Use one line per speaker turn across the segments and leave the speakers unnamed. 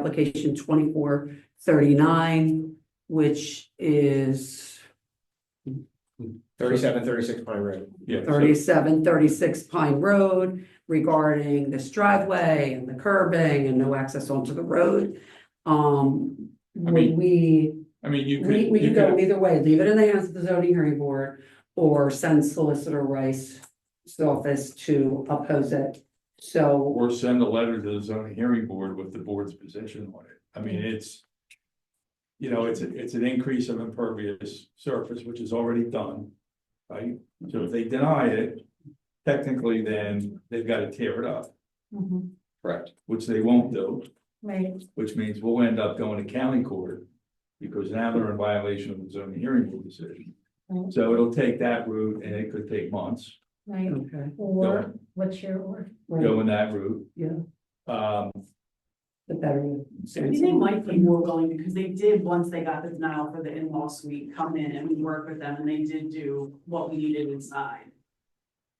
application twenty-four thirty-nine, which is
Thirty-seven, thirty-six Pine Road.
Yeah, so,
thirty-seven, thirty-six Pine Road regarding this driveway and the curbing and no access onto the road. Um,
I
would
mean,
we,
I mean, you
we,
could,
we
you
could go
could,
either way, leave it in the hands of the zoning hearing board or send Solicitor Rice's office to oppose it. So,
or send a letter to the zoning hearing board with the board's position on it. I
Mm-hmm.
mean, it's. You know, it's, a- it's an increase of impervious surface, which is already done. Right? So if they deny it, technically then they've got to tear it up. Correct. Which they won't do,
Mm-hmm. Right,
which means we'll end up going to county court. Because now they're in violation of the zoning hearing board decision.
Mm-hmm.
Right.
So it'll take that route and it could take months
right,
Mm-hmm.
okay.
or what's your or?
right,
going that route.
Yeah.
Um,
The better.
I think they might be more willing because they did, once they got the denial for the in-law suite, come in and we worked with them and they did do what we needed inside.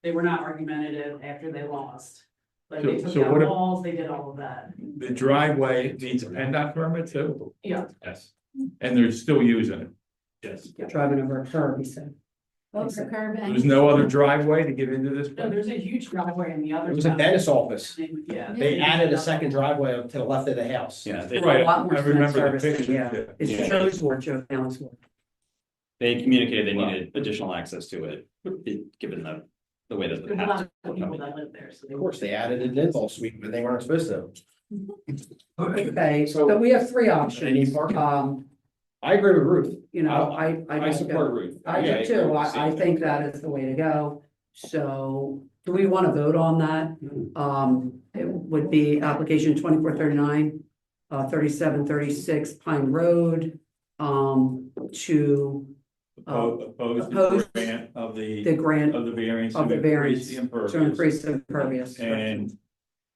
They were not argumentative after they lost. Like they
So-
took
so what
down
if-
walls, they did all of that.
The driveway needs a PennDOT permit too?
Yeah.
Yes. And they're still using it? Yes.
Driving over a curb, he said.
Over curb
There's
and.
no other driveway to get into this?
No,
place?
there's a huge driveway in the other.
It was a
side.
dentist office.
They- Yeah.
They added a second driveway up to the left of the house.
Yeah, they,
There's a
Right,
lot more
I
to that
remember the
service than- yeah.
picture.
It's
Yeah.
Joe's ward, Joe Fallon's ward.
they communicated they needed additional access to it, it- given the, the way that the
There's a lot
path.
of people that live there, so they.
Of course, they added an in-law suite, but they weren't supposed to.
Okay,
So-
so we have three
Any
options,
parking?
um,
I agree with Ruth.
you know, I, I.
I
like
support
that.
Ruth.
I
Yeah,
do
agree
too,
with
I, I
Steve.
think that is the way to go, so, do we wanna vote on that? Um, it would be application twenty-four thirty-nine, uh, thirty-seven thirty-six Pine Road, um, to
Oppo- Opposed the
Opposed.
grant of the,
the grant
of the variance.
Of the
to
variance,
increase the
to
impervious.
to increase impervious.
And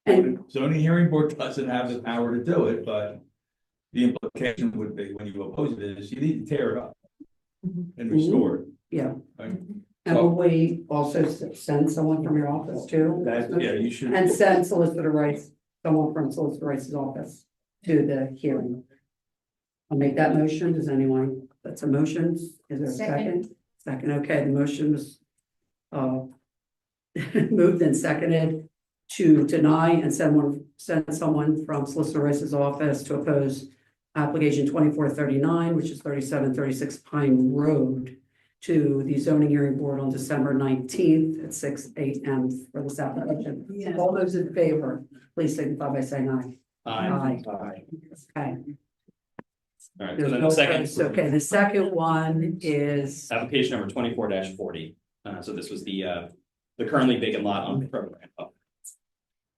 And
zoning hearing board doesn't have the power to do it, but the implication would be when you oppose it is you need to tear it up
Mhm.
Mm-hmm.
and restore it.
Yeah.
Right?
And will we also s- send someone from your office too?
That's, yeah, you should.
And send Solicitor Rice, someone from Solicitor Rice's office to the hearing. I'll make that motion. Does anyone, that's a motion. Is there a second? Second, okay, the motion was uh, moved and seconded to deny and send one, send someone from Solicitor Rice's office to oppose application twenty-four thirty-nine, which is thirty-seven thirty-six Pine Road to the zoning hearing board on December nineteenth at six AM for this application.
Yes.
All those in favor, please signify by saying aye. Aye.
Aye.
Okay.
All right, so
There's
then
no
the
friends. Okay,
second,
the second one is,
application number twenty-four forty, uh, so this was the, uh, the currently vacant lot on the program.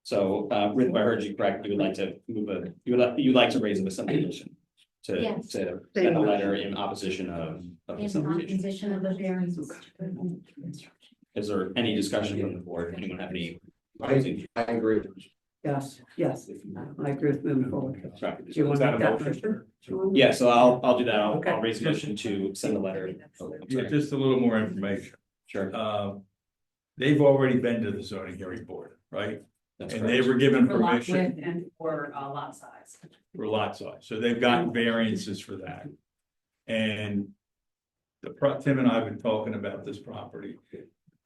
So, uh, Ruth, if I heard you correct, you would like to move a, you would like, you'd like to raise a subdivision to,
Yes.
to send a letter in opposition of, of the
In
subdivision.
opposition of the variance.
Is there any discussion from the board? Anyone have any?
I agree. with you.
yes, yes, I agree with moving forward. Do you want
Is
to
that
make
a
that
motion?
motion?
Yeah, so I'll, I'll do that. I'll,
Okay.
I'll raise a motion to send a letter. Oh, I'm
Yeah,
sorry.
just a little more information.
Sure.
Um, they've already been to the zoning hearing board, right?
That's
And
correct.
they were given
For lot
permission
width and for uh, lot size.
for lot size, so they've gotten variances for that. And the pro, Tim and I have been talking about this property.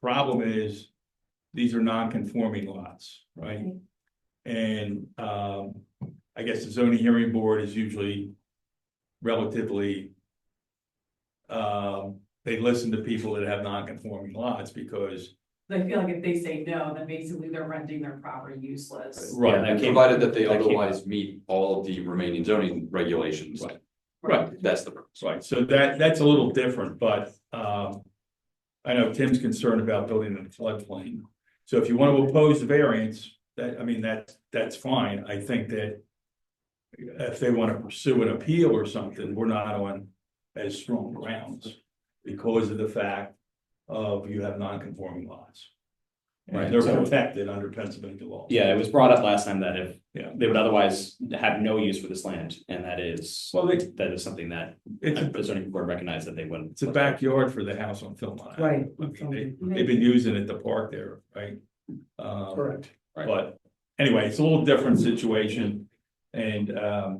Problem is, these are non-conforming lots, right?
Right.
And, um, I guess the zoning hearing board is usually relatively um, they listen to people that have non-conforming lots because
They feel like if they say no, then basically they're renting their property useless.
Yeah,
Right,
that came-
Provided that they
that came-
otherwise meet all of the remaining zoning regulations.
Right. right,
That's the purpose.
right. So that, that's a little different, but, um, I know Tim's concerned about building in a floodplain. So if you want to oppose the variance, that, I mean, that's, that's fine. I think that if they want to pursue an appeal or something, we're not on as strong grounds because of the fact of you have non-conforming lots.
Right,
And they're
so-
protected under Pennsylvania law.
Yeah, it was brought up last time that if
Yeah.
they would otherwise have no use for this land, and that is,
Well, they-
that is something that
It's a
the zoning board recognized that they wouldn't.
It's a backyard for the house on Philmont.
Right.
I mean, they, have been using it to park there, right? Um,
Correct.
But anyway, it's a little different situation. And, um,